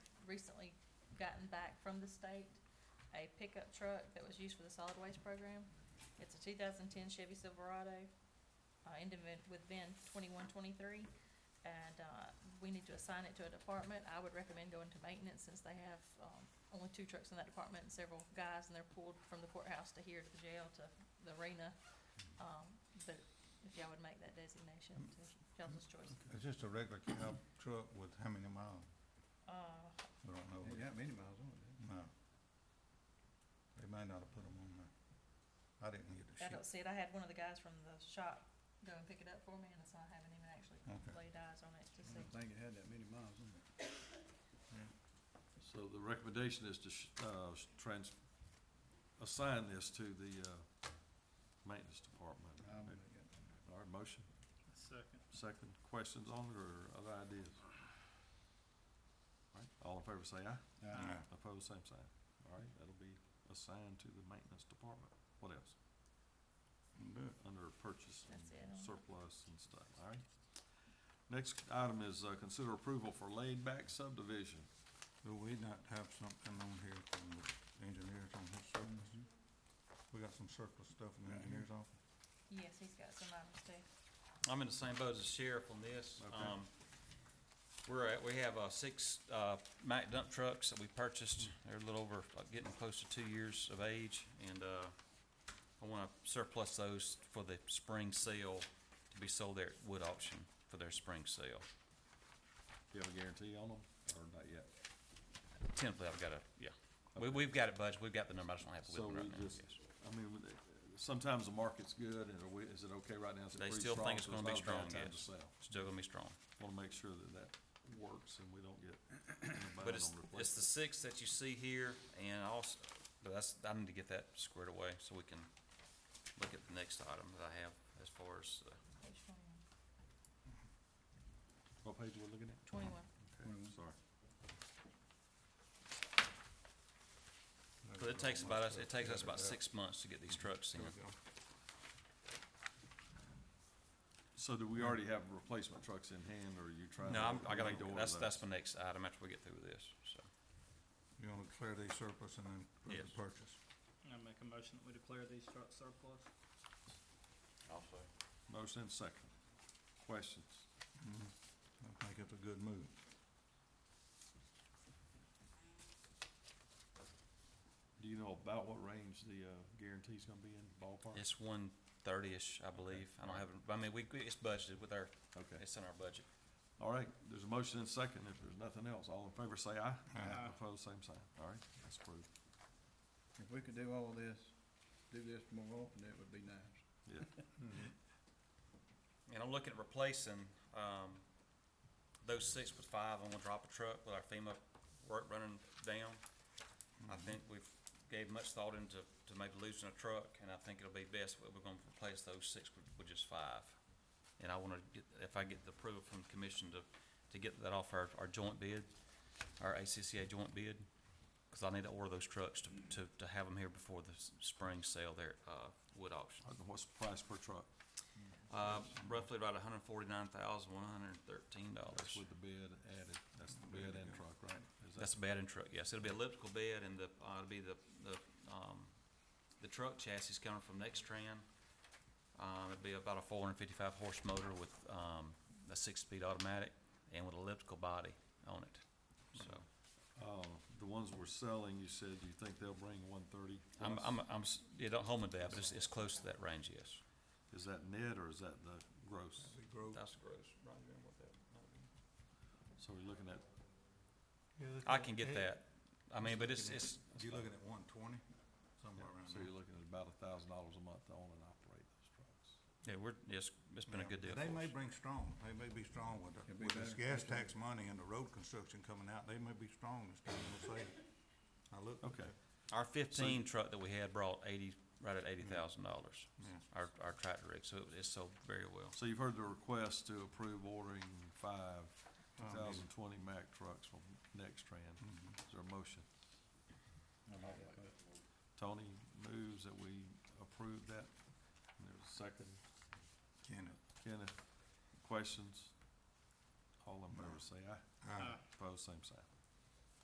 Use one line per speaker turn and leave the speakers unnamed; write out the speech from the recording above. recently gotten back from the state a pickup truck that was used for the solid waste program. It's a two thousand ten Chevy Silverado, uh, ended with- with VIN twenty-one twenty-three. And, uh, we need to assign it to a department. I would recommend going to maintenance since they have, um, only two trucks in that department and several guys and they're pulled from the courthouse to here to the jail to the arena. Um, but if y'all would make that designation to Council's choice.
It's just a regular cab truck with how many miles?
Uh,
We don't know.
Ain't got many miles on it.
No. They might not have put them on there. I didn't get the
I
sheet.
don't see it. I had one of the guys from the shop go and pick it up for me, and so I haven't even actually
Okay.
laid eyes on it to
I
see.
don't think it had that many miles on it.
So the recommendation is to, sh- uh, s- trans, assign this to the, uh, maintenance department.
I don't think it had that.
All right, motion,
Second.
second, questions on it or other ideas? All right, all in favor say aye,
Uh,
Yeah.
opposed, same sign. All right, that'll be assigned to the maintenance department. What else?
Good.
Under purchase and
That's it, um.
surplus and stuff, all right? Next item is, uh, consider approval for laid back subdivision.
Do we not have something on here from the engineers on his surplus? Mm-hmm. We got some surplus stuff in the
Right here.
engineer's office?
Yes, he's got some items too.
I'm in the same boat as the sheriff on this.
Okay.
Um, we're at, we have, uh, six, uh, Mack dump trucks that we purchased. They're a little over, like, getting close to two years of age, and, uh, I wanna surplus those for the spring sale to be sold there at wood auction for their spring sale.
Do you have a guarantee on them or not yet?
Typically, I've got a, yeah. We,
Okay.
we've got it budgeted. We've got the number. I just don't have the
So
whip
we
right now.
just,
Yes.
I mean, with it- sometimes the market's good, and are we, is it okay right now? Is it
They
pretty
still think it's
so
gonna be
not a bad
strong,
time to
yes.
sell?
Still gonna be strong.
Wanna make sure that that works and we don't get
But
anybody
it's,
on
it's the
replacement.
six that you see here, and also, but that's, I need to get that squared away, so we can look at the next item that I have as far as, uh,
Which one?
What page we're looking at?
Twenty-one.
Okay,
Twenty-one.
Sorry.
but it takes about us, it takes us about six months to get these trucks in.
So do we already have replacement trucks in hand, or are you trying?
No,
to
I'm, I gotta,
make the order
that's,
of
that's
those?
my next item after we get through with this, so.
You wanna declare these surplus and then put the
Yes.
purchase?
I make a motion that we declare these trucks surplus.
Motion and second. Questions?
Mhm. I think it's a good move.
Do you know about what range the, uh, guarantee's gonna be in ballpark?
It's one thirty-ish, I believe. I don't have, I mean, we, we- it's budgeted with our,
Okay.
it's in our budget.
All right, there's a motion and second. If there's nothing else, all in favor say aye.
Aye.
Opposed, same sign. All right, that's approved.
If we could do all this, do this more often, that would be nice.
Yeah,
Mm-hmm.
And I'm looking at replacing, um, those six with five, I'm gonna drop a truck with our FEMA work running down. I think we've gave much thought into, to maybe losing a truck, and I think it'll be best, if we're gonna replace those six with, with just five. And I wanna get, if I get the approval from the commission to, to get that off our, our joint bid, our ACCA joint bid, cause I need to order those trucks to, to, to have them here before the s- spring sale there, at, uh, wood auction.
I don't know what's the price per truck?
Uh, roughly about hundred forty-nine thousand, one hundred and thirteen
That's
dollars.
with the bed added, that's the bed and truck, right? Is that-
That's a bed and truck, yes. It'll be elliptical bed and the, uh, it'll be the, the, um, the truck chassis coming from Nextran. Um, it'll be about a four hundred and fifty-five horse motor with, um, a six-speed automatic and with elliptical body on it. So,
Uh, the ones we're selling, you said you think they'll bring one thirty?
I'm, I'm, I'm, s- yeah, don't hold me to that, but it's, it's close to that range, yes.
Is that net or is that the gross?
That'd be gross.
That's gross.
So we're looking at,
I can get that. I mean, but it's, it's,
You looking at one twenty, somewhere around
so
there?
you're looking at about a thousand dollars a month to own and operate those trucks.
yeah, we're, it's, it's been a
Yeah,
good deal
They
for
may
us.
bring strong, they may be strong with the,
It'd be
with this
better.
gas tax money and the road construction coming out, they may be strong this time, we'll see. I look.
Okay,
Our fifteen truck that we had brought eighty, right at eighty thousand dollars,
Yeah.
our, our tractor rig, so it- it sold very well.
so you've heard the request to approve ordering five
Um,
two thousand twenty Mack trucks from Nextran.
mm-hmm.
Is there a motion? Tony moves that we approve that. And there's a second.
Can it?
Kenneth, questions? All in favor say aye.
Aye.
Aye.
Opposed, same sign.